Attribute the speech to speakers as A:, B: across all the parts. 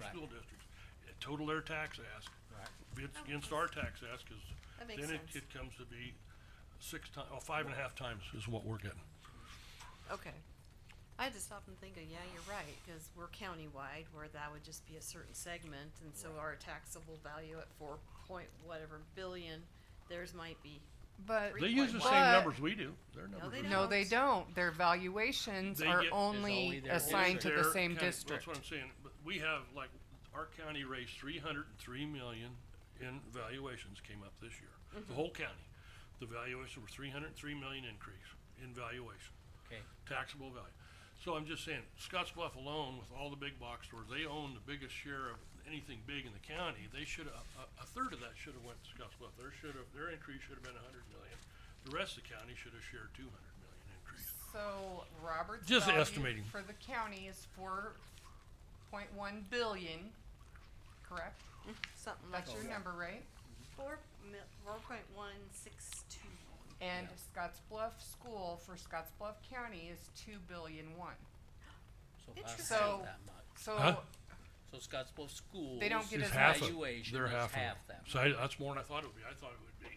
A: Right.
B: school districts, total their tax ask,
A: Right.
B: bids against our tax ask, cause
C: That
B: then
C: makes
B: it,
C: sense.
B: it comes to be six ti- oh, five and a half times is what we're getting.
C: Okay. I had to stop and think, of, yeah, you're right, cause we're countywide, where that would just be a certain segment, and so our taxable value at four point whatever billion, theirs might be,
D: But
C: Three
B: They use the
C: point
B: same
D: one.
B: numbers we do, their numbers.
C: they
B: are-
C: don't.
D: no, they don't. Their valuations
B: They
D: are
B: get- It's
A: only
D: only
A: their
D: assigned to the
B: Their
D: same
B: county-
D: district.
B: That's what I'm saying, but we have, like, our county raised three hundred and three million in valuations came up this year,
C: Mm-hmm.
B: the whole county. The valuations were three hundred and three million increase in valuation.
A: Okay.
B: taxable value. So I'm just saying, Scotts Bluff alone, with all the big box stores, they own the biggest share of anything big in the county. They should, a, a, a third of that should have went to Scotts Bluff. Their should have, their increase should have been a hundred million. The rest of the county should have shared two hundred million increase.
D: So Robert's
B: Just
D: value
B: estimating.
D: for the county is four point one billion, correct?
C: something like
D: That's your
C: that.
D: number, right?
C: Four mil, four point one six two.
D: And Scotts Bluff School for Scotts Bluff County is two billion one.
A: So half of
C: Interesting.
A: that much.
D: So
B: Huh?
A: So Scottsbluff Schools.
D: They don't get
B: It's
D: as
B: half
D: much.
B: of-
A: Valuation
B: they're
A: is
B: half of it.
A: half that
B: So I, that's more than I thought it would be. I thought it would be,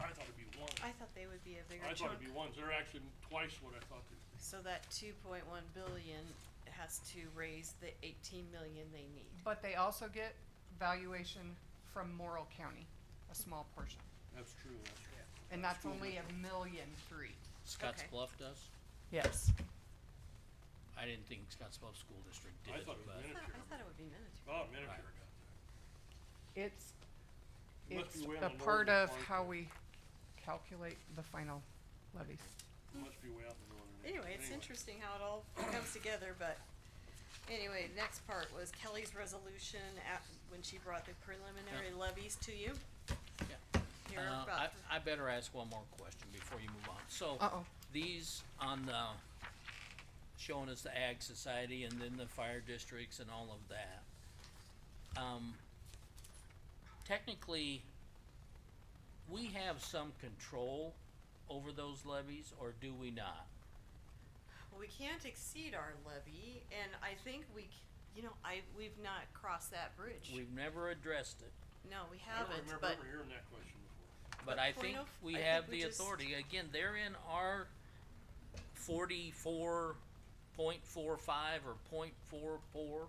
B: I thought it'd be one.
C: I thought they would be a bigger
B: I thought
C: chunk,
B: it'd be ones. They're actually twice what I thought they,
C: so that two point one billion has to raise the eighteen million they need.
D: But they also get valuation from Morrill County, a small portion.
B: that's true, that's true.
D: And that's only a million three.
C: Okay.
A: Scottsbluff does?
D: Yes.
A: I didn't think Scottsbluff School District did,
B: I
A: it,
B: thought it was
A: but
C: I
B: minute-
C: thought, I thought it would be miniature.
B: Oh, Medicare got that.
D: It's,
B: It must
D: it's
B: be way on
D: a
B: the
D: part
B: northern
D: of
B: part
D: how
B: there.
D: we calculate the final levies.
B: It Must be way out in the northern. end.
C: Anyway, it's interesting how it all comes together, but anyway, next part was Kelly's resolution at, when she brought the preliminary levies to you.
A: Yeah.
C: You're
A: Uh,
C: about
A: I,
C: to-
A: I better ask one more question before you move on. So.
D: Uh-oh.
A: These on the, showing us the Ag Society and then the fire districts and all of that. Um, technically, we have some control over those levies or do we not?
C: Well, we can't exceed our levy, and I think we, c- you know, I, we've not crossed that bridge.
A: We've never addressed it,
C: No, we
B: I don't
C: haven't,
B: remember
C: but,
B: ever hearing that question before.
A: but
C: But
A: I
C: point
A: think
C: of-
A: we
C: I think
A: have
C: we
A: the
C: just-
A: authority. Again, they're in our forty-four point four five or point four four.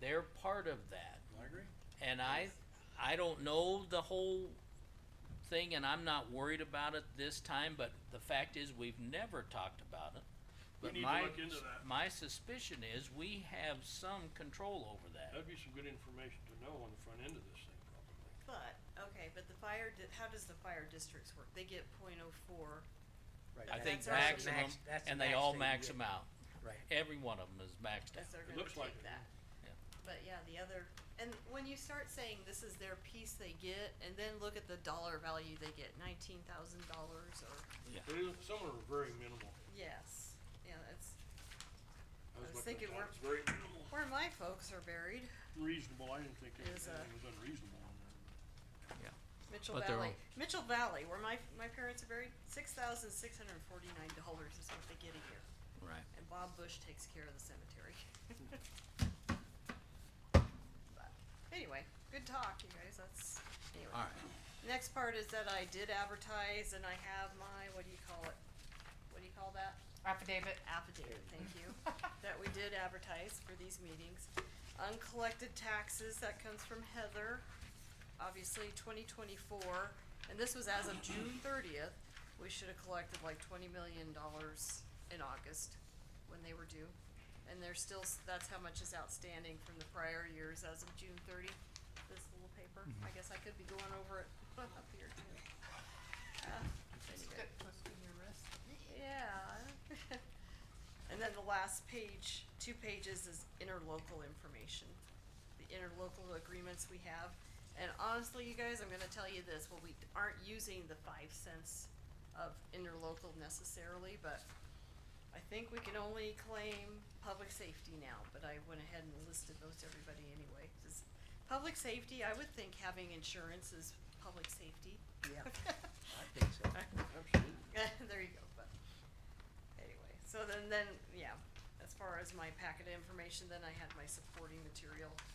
A: They're part of that.
B: I agree.
A: And I, I don't know the whole thing, and I'm not worried about it this time, but the fact is, we've never talked about it.
B: We
A: But
B: need to
A: my,
B: look into
A: s-
B: that.
A: my suspicion is we have some control over that.
B: That'd be some good information to know on the front end of this thing, probably.
C: but, okay, but the fire, di- how does the fire districts work? They get point oh four.
E: Right.
A: I
C: That's
A: think
C: our- That's
E: the
A: maximum,
E: max- that's the
A: and they
E: max
A: all
E: that you
A: max
E: get.
A: them out.
E: Right.
A: Every one of them is maxed
C: Cause
A: out.
C: they're
B: It
C: gonna
B: looks like
C: take
B: it,
C: that.
A: yeah.
C: But yeah, the other, and when you start saying this is their piece they get, and then look at the dollar value they get, nineteen thousand dollars or,
B: But it- some are very minimal.
C: yes, yeah,
B: I
C: that's
B: was
C: was
B: looking
C: thinking
B: at that.
C: we're-
B: It's very minimal.
C: where my folks are buried,
B: Reasonable, I didn't think
C: Is, uh,
B: anything was unreasonable on there.
C: Mitchell
A: But they're
C: Valley,
A: all-
C: Mitchell Valley, where my, my parents are buried, six thousand six hundred and forty-nine dollars is what they get a year,
A: Right.
C: and Bob Bush takes care of the cemetery. But Anyway, good talk, you guys, that's, anyway.
A: Alright,
C: Next part is that I did advertise and I have my, what do you call it? What do you call that?
D: Affidavit.
C: Affidavit, thank you, that we did advertise for these meetings. Uncollected taxes, that comes from Heather, obviously twenty twenty-four, and this was as of June thirtieth. We should have collected like twenty million dollars in August when they were due. And there's still, s- that's how much is outstanding from the prior years as of June thirty, this little paper. I guess I could be going over it up here too. Uh, anyway. Yeah. And then the last page, two pages is interlocal information. The interlocal agreements we have. And honestly, you guys, I'm gonna tell you this, well, we aren't using the five cents of interlocal necessarily, but I think we can only claim public safety now, but I went ahead and listed those to everybody anyway. 'cause Public safety, I would think having insurance is public safety.
E: Yeah. I think so.
B: Absolutely.
C: there you go, but anyway, so then, then, yeah, as far as my packet of information, then I had my supporting material